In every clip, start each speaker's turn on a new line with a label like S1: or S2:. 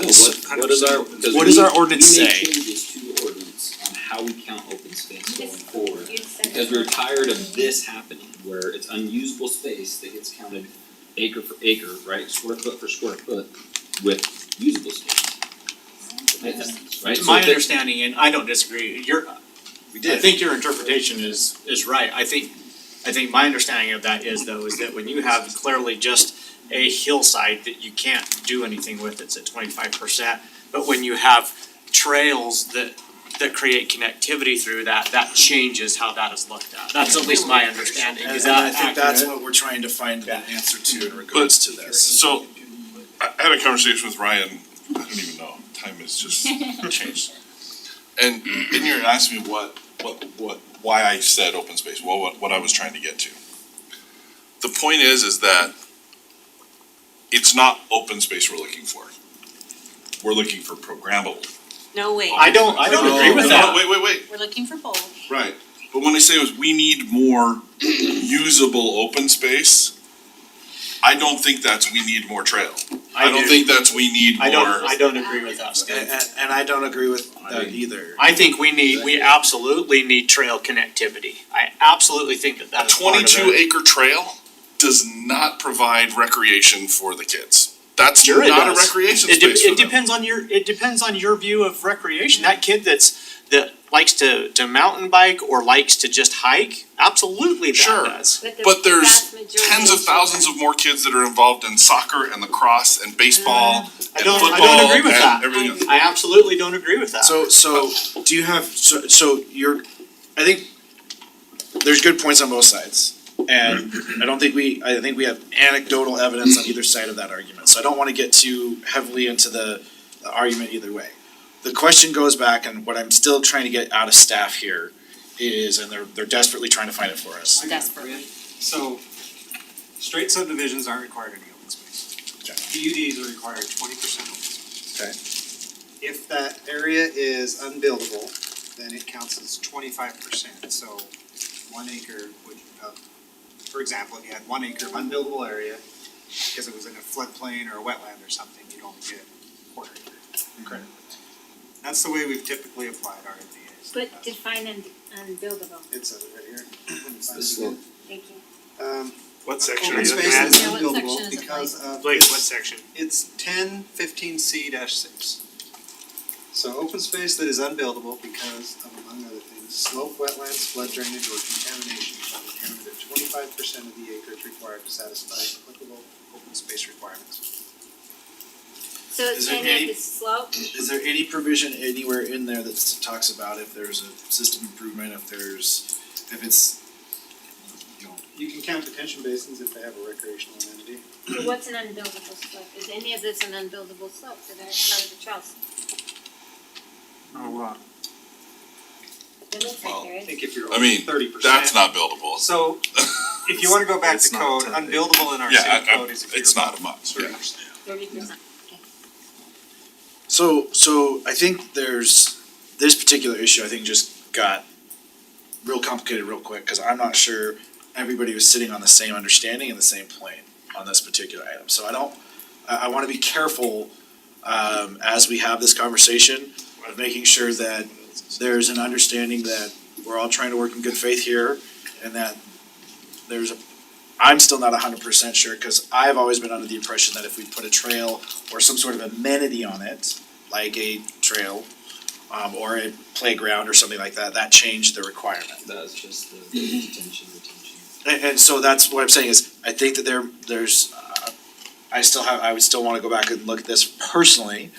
S1: Yes.
S2: What what is our, because
S1: What does
S2: we-
S1: our ordinance
S2: we made
S1: say?
S2: changes to ordinance on how we count open space going
S3: This-
S2: forward.
S3: You said
S2: Because we were tired of this happening, where it's unusable space that gets counted acre for acre, right, square foot for square foot with usable space. Right, so
S4: It's my
S2: if it-
S4: understanding, and I don't disagree, your,
S1: We
S4: I think your interpretation is, is right, I think, I think my understanding of that is though, is that when you have clearly just a hillside that you can't do anything with, it's at twenty-five percent, but when you have trails that, that create connectivity through that, that changes how that is looked at, that's at least my understanding,
S5: And
S4: is
S5: and I
S4: that
S5: think that's
S4: accurate?
S5: what we're trying to find an answer to in regards to this.
S6: So, I I had a conversation with Ryan, I don't even know, time has just changed. And in here, it asked me what, what, what, why I said open space, well, what, what I was trying to get to. The point is, is that it's not open space we're looking for. We're looking for programmable.
S7: No way.
S4: I don't, I don't
S5: Oh,
S4: agree with
S6: No,
S4: that.
S6: Wait, wait, wait,
S7: We're looking for both.
S6: right, but when I say was, we need more usable open space, I don't think that's we need more trail. I don't
S4: do.
S6: think that's we need more.
S4: I don't, I don't agree with that,
S5: And,
S4: Stan.
S5: and, and I don't agree with
S2: I
S5: that
S2: mean-
S5: either.
S4: I think we need, we absolutely need trail connectivity. I absolutely think that
S6: A
S4: that is part of it.
S6: twenty-two acre trail does not provide recreation for the kids. That's
S4: Sure it
S6: not a
S4: does.
S6: recreation
S4: It de-
S6: space for
S4: it
S6: them.
S4: depends on your, it depends on your view of recreation. That kid that's, that likes to, to mountain bike or likes to just hike, absolutely that
S6: Sure.
S4: does.
S3: But the
S6: But there's
S3: vast majority
S6: tens of thousands of more kids that are involved in soccer and lacrosse and baseball
S4: I
S6: and
S4: don't- I don't
S6: football
S4: agree with that.
S6: and everything else.
S4: I absolutely don't agree with that.
S5: So, so, do you have, so, so you're, I think there's good points on both sides. And I don't think we, I think we have anecdotal evidence on either side of that argument, so I don't wanna get too heavily into the, the argument either way. The question goes back, and what I'm still trying to get out of staff here is, and they're, they're desperately trying to find it for us.
S7: Desperately.
S8: So, straight subdivisions aren't required any open space.
S5: Okay.
S8: PUDs are required twenty percent open space.
S5: Okay.
S8: If that area is unbuildable, then it counts as twenty-five percent, so one acre would, uh, for example, if you had one acre of unbuildable area, because it was in a floodplain or a wetland or something, you'd only get a quarter acre. Credit. That's the way we've typically applied our NDAs.
S3: But define un- unbuildable,
S8: It says it right here.
S2: It's the slope.
S3: thank you.
S8: Um,
S9: What section are
S8: Open
S9: you looking
S8: space
S9: at?
S8: is
S7: Yeah, what
S8: buildable
S7: section is it,
S8: because of.
S9: Blake, what section?
S8: It's ten fifteen C six. So open space that is unbuildable because of, among other things, slope, wetlands, flood drainage, or contamination shall be counted at twenty-five percent of the acres required to satisfy applicable open space requirements.
S3: So it's
S5: Is there
S3: saying that
S5: any-
S3: the slope,
S5: Is there any provision anywhere in there that talks about if there's a system improvement, if there's, if it's, you know,
S8: You can count detention basins if they have a recreational amenity.
S3: what's an unbuildable slope? Is any of this an unbuildable slope that are part of the trails?
S8: Oh, wow.
S3: It looks
S6: Well,
S3: like there
S8: I
S3: is.
S8: think if you're
S6: I mean,
S8: thirty percent.
S6: That's not buildable.
S8: So, if you wanna go back to code, unbuildable in our
S6: Yeah,
S8: city
S6: I- I-
S8: code is if you're
S6: It's not a
S8: above
S6: must, yeah.
S8: 30%.
S3: Thirty percent.
S5: So, so I think there's, this particular issue, I think just got real complicated real quick, cause I'm not sure everybody was sitting on the same understanding and the same plane on this particular item, so I don't, I, I wanna be careful, um, as we have this conversation, of making sure that there's an understanding that we're all trying to work in good faith here, and that there's a, I'm still not hundred percent sure, cause I've always been under the impression that if we put a trail or some sort of amenity on it, like a trail, um, or a playground or something like that, that changed the requirement.
S2: That's just the
S1: Mm-hmm.
S2: detention, retention.
S5: And, and so that's what I'm saying is, I think that there, there's, uh, I still have, I would still wanna go back and look at this personally,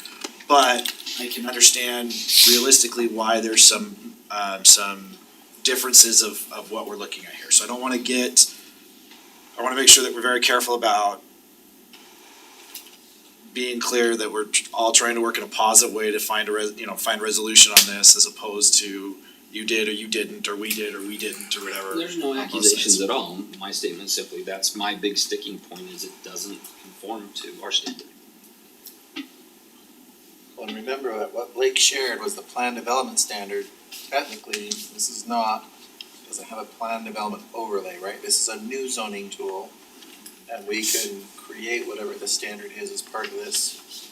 S5: but I can understand realistically why there's some, um, some differences of, of what we're looking at here. So I don't wanna get, I wanna make sure that we're very careful about being clear that we're tr- all trying to work in a positive way to find a res, you know, find resolution on this as opposed to you did or you didn't, or we did or we didn't, or whatever.
S2: There's no
S5: on both sides.
S2: accusations at all, my statement simply, that's my big sticking point, is it doesn't conform to our standard.
S10: Well, and remember that what Blake shared was the plan development standard. Technically, this is not, doesn't have a plan development overlay, right? This is a new zoning tool. And we can create whatever the standard is as part of this